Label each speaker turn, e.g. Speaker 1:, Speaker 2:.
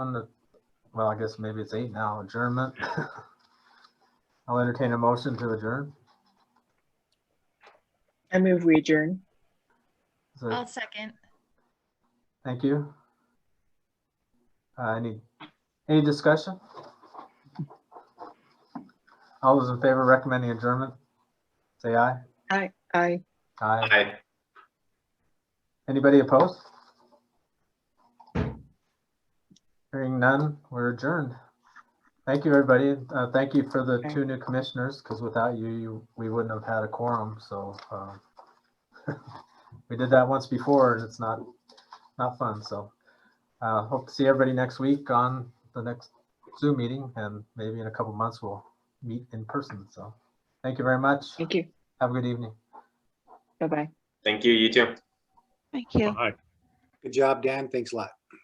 Speaker 1: On the, well, I guess maybe it's eight now, adjournment. I'll entertain a motion to adjourn.
Speaker 2: I move we adjourn.
Speaker 1: Is there-
Speaker 3: I'll second.
Speaker 1: Thank you. Uh, Any, any discussion? All those in favor recommending adjournment? Say aye.
Speaker 2: Aye, aye.
Speaker 1: Aye.
Speaker 4: Aye.
Speaker 1: Anybody opposed? Hearing none, we're adjourned. Thank you, everybody. Uh, Thank you for the
Speaker 2: Okay.
Speaker 1: two new commissioners, because without you, you, we wouldn't have had a quorum, so. um, We did that once before, and it's not, not fun, so. uh, Hope to see everybody next week on the next Zoom meeting, and maybe in a couple months we'll meet in person, so. Thank you very much.
Speaker 2: Thank you.
Speaker 1: Have a good evening.
Speaker 2: Bye-bye.
Speaker 4: Thank you, you too.
Speaker 5: Thank you.
Speaker 6: Good job, Dan. Thanks a lot.